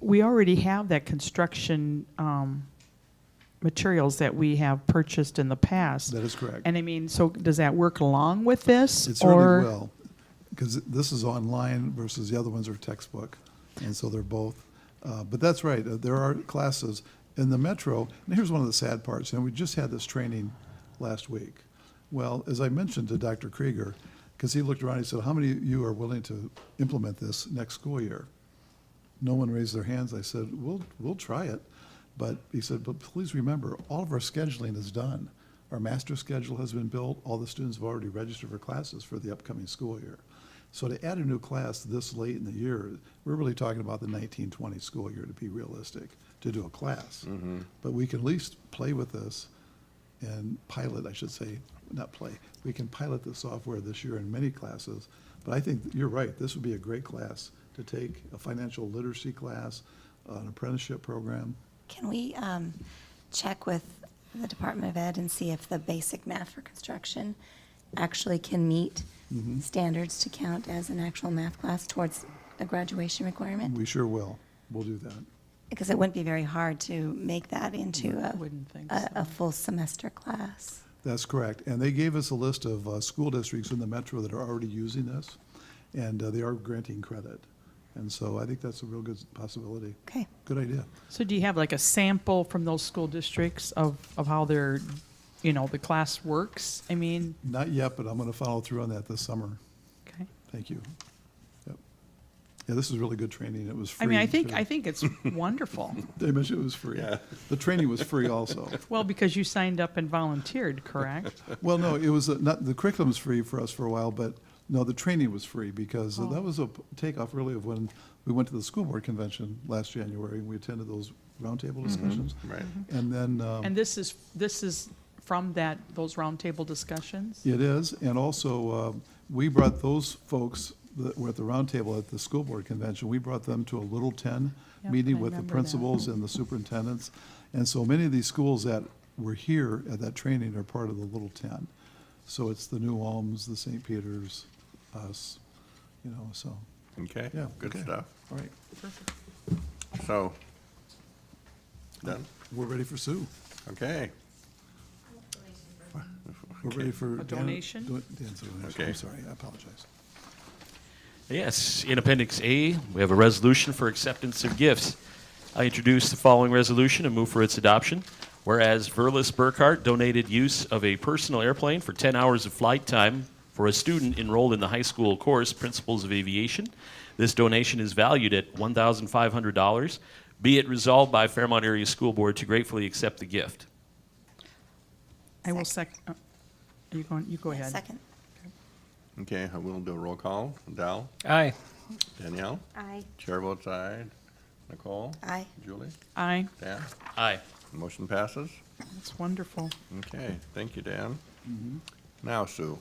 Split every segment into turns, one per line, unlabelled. we already have that construction um, materials that we have purchased in the past.
That is correct.
And I mean, so does that work along with this?
It
or-
certainly will, because this is online versus the other ones are textbook, and so they're both. Uh, But that's right, uh, there are classes in the metro, and here's one of the sad parts, and we just had this training last week. Well, as I mentioned to Dr. Krieger, because he looked around, he said, how many of you are willing to implement this next school year? No one raised their hands. I said, we'll, we'll try it. But he said, but please remember, all of our scheduling is done. Our master schedule has been built. All the students have already registered for classes for the upcoming school year. So to add a new class this late in the year, we're really talking about the 1920 school year to be realistic, to do a class. But we can at least play with this and pilot, I should say, not play, we can pilot the software this year in many classes. But I think you're right, this would be a great class to take, a financial literacy class, an apprenticeship program.
Can we um, check with the Department of Ed and see if the basic math for construction actually can meet standards to count as an actual math class towards a graduation requirement?
We sure will. We'll do that.
Because it wouldn't be very hard to make that into a,
Wouldn't think
a, a
so.
full semester class.
That's correct. And they gave us a list of uh, school districts in the metro that are already using this, and uh, they are granting credit. And so I think that's a real good possibility.
Okay.
Good idea.
So do you have like a sample from those school districts of, of how their, you know, the class works? I mean,
Not yet, but I'm going to follow through on that this summer.
okay.
Thank you. Yep. Yeah, this is really good training. It was free.
I mean, I think,
too.
I think it's wonderful.
They mentioned it was free. The training was free also.
Well, because you signed up and volunteered, correct?
Well, no, it was, uh, not, the curriculum was free for us for a while, but no, the training was free because
Oh.
that was a p- takeoff really of when we went to the school board convention last January and we attended those roundtable discussions.
Right.
And then, um,
Mm-hmm. And this is, this is from that, those roundtable discussions?
It is, and also, uh, we brought those folks that were at the roundtable at the school board convention, we brought them to a Little Ten
Yep, I
meeting with the
remember that.
principals and the superintendents. And so many of these schools that were here at that training are part of the Little Ten. So it's the New Ulms, the St. Peters, us, you know, so,
Okay,
yeah.
good
okay.
stuff.
All right,
So, done,
we're ready for Sue.
okay.
We're ready for. Dan-
donation?
do- Dan's donation,
Okay.
I'm sorry, I apologize.
Yes, in Appendix A, we have a resolution for acceptance of gifts. I introduce the following resolution and move for its adoption. Whereas Verlis Burkhart donated use of a personal airplane for 10 hours of flight time for a student enrolled in the high school course Principles of Aviation. This donation is valued at $1,500. Be it resolved by Fairmont Area School Board to gratefully accept the gift.
I will sec, uh, are you going, you go ahead.
Second.
Okay, I will do a roll call. Dal,
Aye.
Danielle,
Aye.
chair votes aye. Nicole,
Aye.
Julie,
Aye,
Dan,
Aye.
motion passes.
that's wonderful.
Okay, thank you, Dan.
Mm-hmm.
Now, Sue,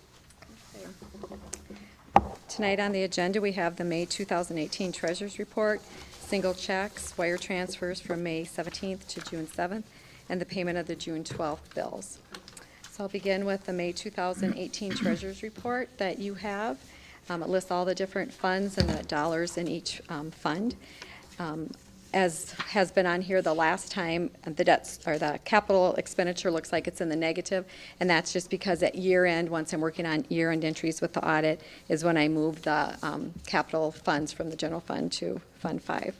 Tonight on the agenda, we have the May 2018 Treasurers Report, single checks, wire transfers from May 17th to June 7th, and the payment of the June 12th bills. So I'll begin with the May 2018 Treasurers Report that you have. Um, It lists all the different funds and the dollars in each um, fund. Um, As has been on here the last time, uh, the debts, or the capital expenditure looks like it's in the negative, and that's just because at year end, once I'm working on year end entries with the audit, is when I move the um, capital funds from the general fund to Fund Five.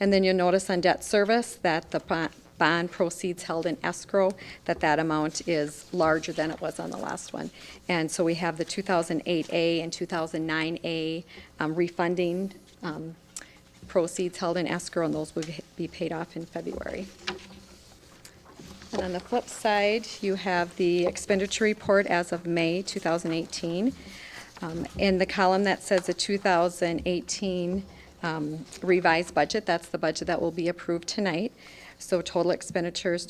And then you'll notice on debt service that the bo- bond proceeds held in escrow, that that amount is larger than it was on the last one. And so we have the 2008A and 2009A um, refunding um, proceeds held in escrow, and those will be paid off in February. And on the flip side, you have the expenditure report as of May 2018. Um, In the column that says the 2018 um, revised budget, that's the budget that will be approved tonight. So total expenditures,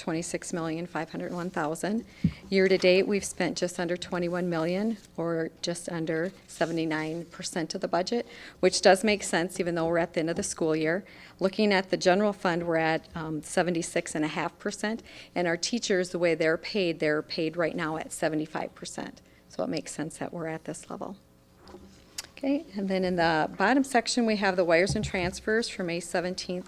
$26,501,000. Year-to-date, we've spent just under $21 million, or just under 79% of the budget, which does make sense, even though we're at the end of the school year. Looking at the general fund, we're at um, 76.5%, and our teachers, the way they're paid, they're paid right now at 75%. So it makes sense that we're at this level. Okay, and then in the bottom section, we have the wires and transfers for May 17th